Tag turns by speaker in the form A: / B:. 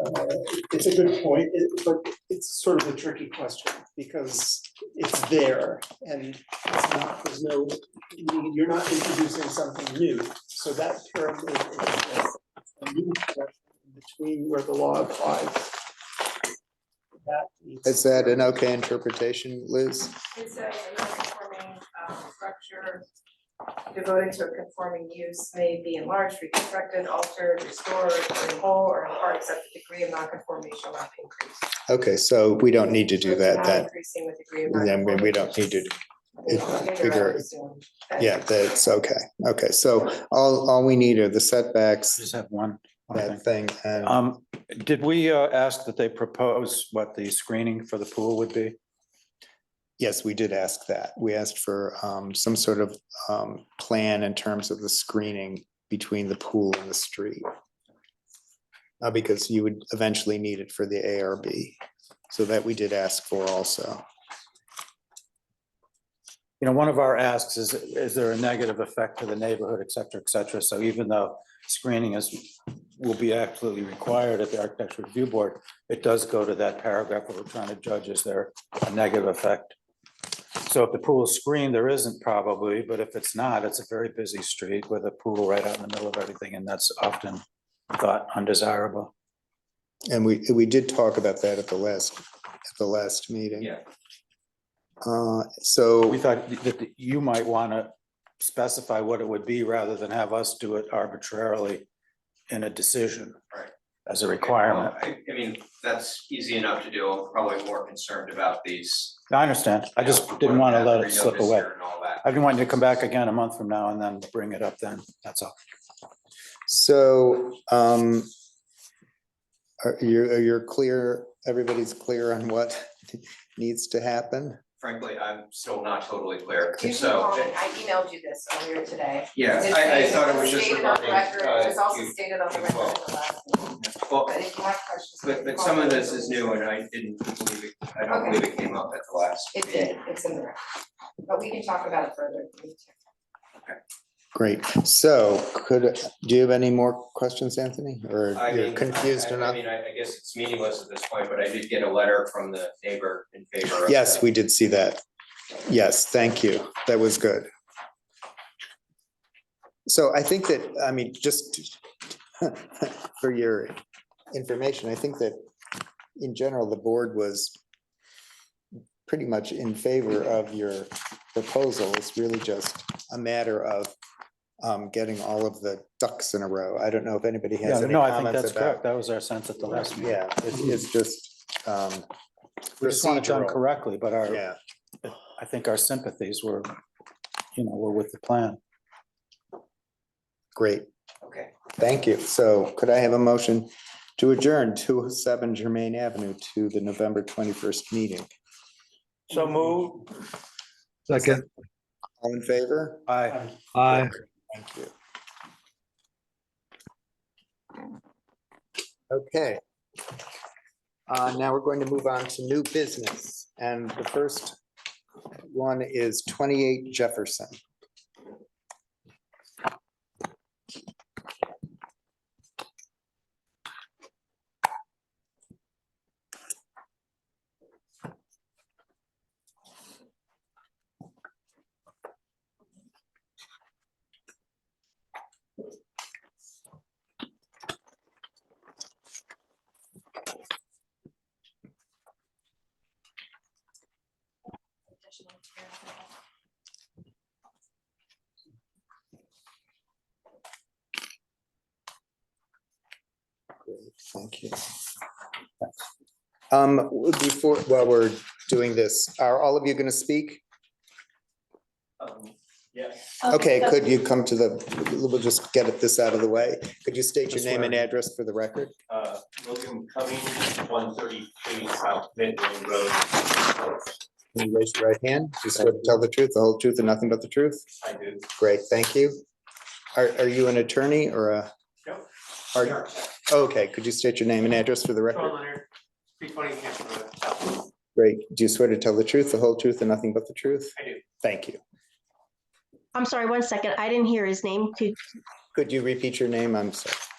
A: Uh, It's a good point, it- but it's sort of a tricky question because it's there and it's not, there's no, you're not introducing something new. So that term is is a new correction between where the law applies. That needs-
B: Is that an okay interpretation, Liz?
C: It's a non-conforming um, structure devoted to a conforming use may be enlarged, reconstructed, altered, restored, or in whole or in part, except the degree of non-conformity shall not be increased.
B: Okay, so we don't need to do that,
C: Not
B: that,
C: Increasing with degree of
B: then we-
C: non-conformity.
B: we don't need to,
C: It's
B: figure-
C: assumed that-
B: yeah, that's okay. Okay, so all, all we need are the setbacks,
D: Just have one. one thing.
B: that thing, and
D: Um, did we uh, ask that they propose what the screening for the pool would be?
B: yes, we did ask that. We asked for um, some sort of um, plan in terms of the screening between the pool and the street. Uh, Because you would eventually need it for the ARB, so that we did ask for also.
D: You know, one of our asks is, is there a negative effect to the neighborhood, et cetera, et cetera? So even though screening is, will be absolutely required at the architecture review board, it does go to that paragraph where we're trying to judge, is there a negative effect? So if the pool is screened, there isn't probably, but if it's not, it's a very busy street with a pool right out in the middle of everything, and that's often thought undesirable.
B: And we, we did talk about that at the last, at the last meeting.
D: Yeah.
B: Uh, so.
D: We thought that you might want to specify what it would be rather than have us do it arbitrarily in a decision.
E: Right.
D: As a requirement.
E: Well, I I mean, that's easy enough to do. I'm probably more concerned about these.
D: I understand. I just didn't want to let it slip
E: Renotice
D: away.
E: here And all that.
D: I've been wanting to come back again a month from now and then bring it up then. That's all.
B: So, um, are you, are you clear, everybody's clear on what needs to happen?
E: Frankly, I'm still not totally clear.
C: You can
E: So,
C: call me. I emailed you this earlier today.
E: yeah,
C: It's
E: I, I
C: stated-
E: thought it was
C: it's
E: just
C: stated on the
E: regarding.
C: record. It was
E: uh,
C: also
E: you-
C: stated on the
E: you
C: record
E: twelve.
C: at the last meeting,
E: Well,
C: but if you have questions. you
E: but,
C: can
E: but
C: call
E: some of
C: me.
E: this is new and I didn't believe it. I don't
C: Okay.
E: believe it came up at the last.
C: It
E: meeting.
C: did, it's in the record, but we can talk about it further. if we need to.
B: Great. So could, do you have any more questions, Anthony? Or
E: I
B: you're
E: mean,
B: confused
E: I- I- I
B: enough?
E: mean, I, I guess it's meaningless at this point, but I did get a letter from the neighbor in favor of.
B: Yes, we did see that. Yes, thank you. That was good. So I think that, I mean, just for your information, I think that in general, the board was pretty much in favor of your proposal. It's really just a matter of um, getting all of the ducks in a row. I don't know if anybody
D: Yeah,
B: has any
D: no, I think
B: comments
D: that's correct.
B: about.
D: That was our sense at the last meeting.
B: Yeah, it's, it's just um,
D: We just want it done
B: procedural.
D: correctly, but our,
B: Yeah.
D: I think our sympathies were, you know, were with the plan.
B: Great,
E: Okay.
B: thank you. So could I have a motion to adjourn two oh seven Germain Avenue to the November twenty-first meeting?
F: So move.
G: Second,
B: All in favor?
D: Aye.
G: aye.
B: Thank you. Okay. Uh, now we're going to move on to new business, and the first one is twenty-eight Jefferson. Great, Thank you. Um, w- before, while we're doing this, are all of you gonna speak?
E: Um, Yeah.
B: Okay, could you come to the, we'll just get this out of the way. Could you state your
D: Just
B: name and
D: where-
B: address for the record?
H: uh, William Cummings, one thirty-three South Midland Road.
B: Can you raise your right hand? You swear to tell the truth, the whole truth and nothing but the truth?
H: I do.
B: Great, thank you. Are, are you an attorney or a?
H: Yep.
B: Are, okay, could you state your name and address for the record?
H: Leonard, three twenty Hampton Road, South.
B: Great, do you swear to tell the truth, the whole truth and nothing but the truth?
H: I do.
B: Thank you.
I: I'm sorry, one second. I didn't hear his name. Could,
B: Could you repeat your name? I'm sorry.